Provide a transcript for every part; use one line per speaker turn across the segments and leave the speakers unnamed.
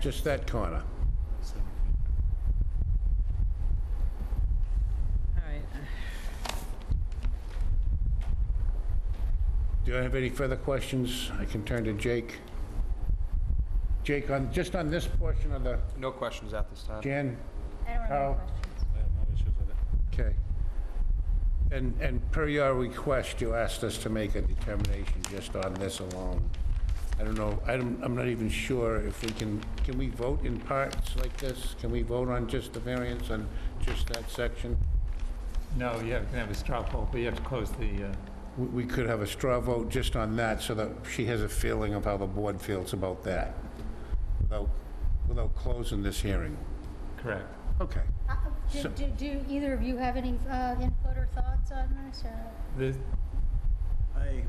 just that corner.
All right,
Do you have any further questions? I can turn to Jake. Jake, on, just on this portion of the,
No questions at this time.
Jan,
I don't have
How-
any questions.
I have no issues with it.
okay. And, and per your request, you asked us to make a determination just on this alone. I don't know, I don't, I'm not even sure if we can, can we vote in parts like this? Can we vote on just the variance on just that section?
No, you have, can have a straw poll, but you have to close the, uh,
We- We could have a straw vote just on that, so that she has a feeling of how the board feels about that, without, without closing this hearing.
correct.
Okay.
Uh, do-
So-
Do, do either of you have any uh, input or thoughts on this, or?
This,
I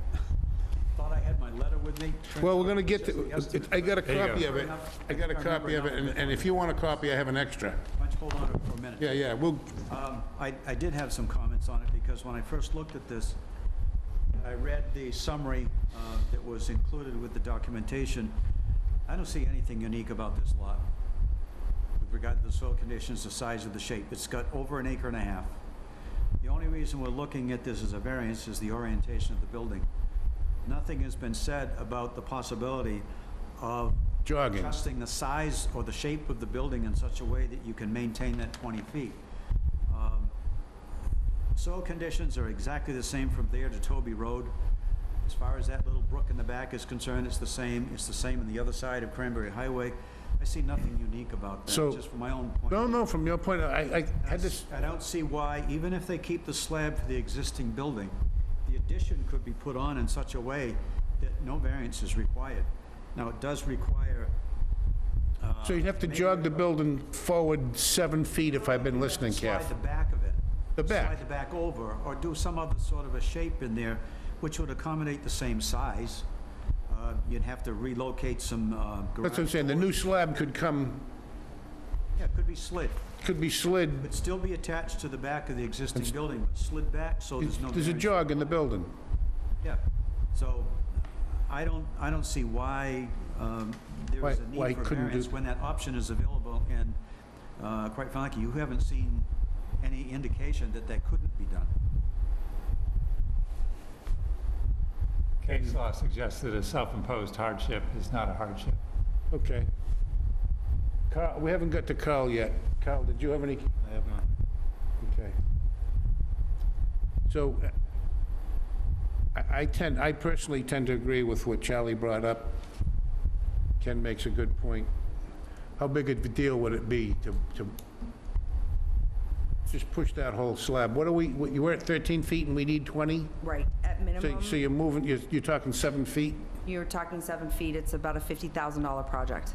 thought I had my letter with me.
Well, we're gonna get,
It's just
to-
yesterday,
I got a
but-
you go.
copy of it. I got a copy of it, and and if you want a copy, I have an extra.
Why don't you hold on to it for a minute?
Yeah, yeah, we'll,
Um, I, I did have some comments on it, because when I first looked at this, I read the summary uh, that was included with the documentation. I don't see anything unique about this lot with regard to the soil conditions, the size of the shape. It's got over an acre and a half. The only reason we're looking at this as a variance is the orientation of the building. Nothing has been said about the possibility of
Jogging.
adjusting the size or the shape of the building in such a way that you can maintain that 20 feet. Um, Soil conditions are exactly the same from there to Toby Road. As far as that little brook in the back is concerned, it's the same, it's the same on the other side of Cranberry Highway. I see nothing unique about
So-
that, just from my own point.
no,
of view.
no, from your point, I, I had this,
I don't see why, even if they keep the slab for the existing building, the addition could be put on in such a way that no variance is required. Now, it does require
so you'd have to jog the building forward seven feet if I've been listening
Slide
carefully.
the back of it.
The back.
Slide the back over, or do some other sort of a shape in there, which would accommodate the same size. Uh, You'd have to relocate some uh, garage.
That's what I'm saying, the new slab could come,
Yeah, it could be slid.
could be slid,
It'd still be attached to the back of the existing building, but slid back, so there's no.
there's a
variance.
jog in the building.
Yeah, so I don't, I don't see why um, there
Why-
is a
why
need for
couldn't do-
variance when that option is available, and uh, quite frankly, you haven't seen any indication that that couldn't be done.
case law suggests that a self-imposed hardship is not a hardship.
Okay. Carl, we haven't got to Carl yet. Carl, did you have any?
I have not.
Okay. So uh, I- I tend, I personally tend to agree with what Charlie brought up. Ken makes a good point. How big of a deal would it be to, to just push that whole slab? What are we, what- you were at 13 feet and we need 20?
Right, at
So
minimum,
so you're moving, you're you're talking seven feet?
you're talking seven feet, it's about a $50,000 project.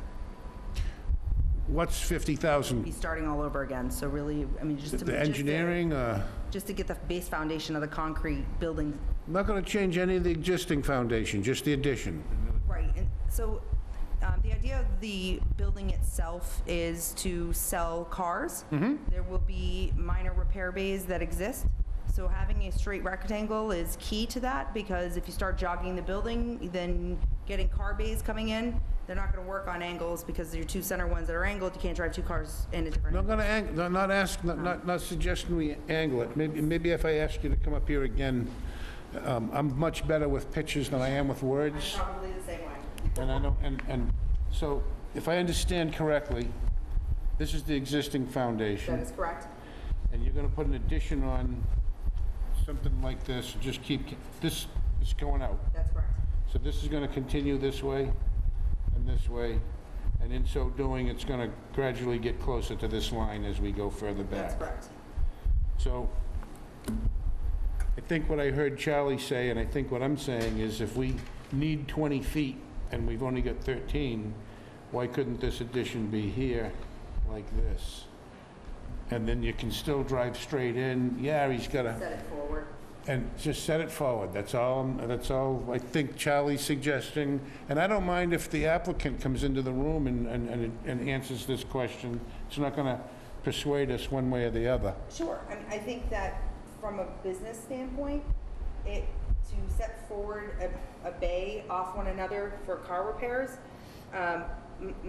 What's 50,000?
Be starting all over again, so really, I mean, just to...
The
just to-
engineering, uh?
Just to get the base foundation of the concrete building,
I'm Not going to change any of the existing foundation, just the addition.
right, and so um, the idea of the building itself is to sell cars. There will be minor repair bays that exist, so having a straight rectangle is key to that, because if you start jogging the building, then getting car bays coming in, they're not going to work on angles, because your two center ones that are angled, you can't drive two cars in a different
Not
angle.
going to, ang not- not ask, not- not, not suggesting we angle it. Maybe, maybe if I ask you to come up here again, um, I'm much better with pictures than I am with words.
Probably the same way.
And I don't, and, and, so if I understand correctly, this is the existing
That
foundation,
is correct.
and you're going to put an addition on something like this, and just keep, this is going out.
That's correct.
So this is gonna continue this way and this way, and in so doing, it's gonna gradually get closer to this line as we go further back.
That's correct.
So I think what I heard Charlie say, and I think what I'm saying, is if we need 20 feet and we've only got 13, why couldn't this addition be here like this? And then you can still drive straight in. Yeah, he's got a,
Set it forward.
and just set it forward, that's all, I'm- that's all I think Charlie's suggesting. And I don't mind if the applicant comes into the room and, and- and, and answers this question. It's not gonna persuade us one way or the other.
Sure. I mean, I think that from a business standpoint, it, to set forward a, a bay off one another for car repairs, um, m-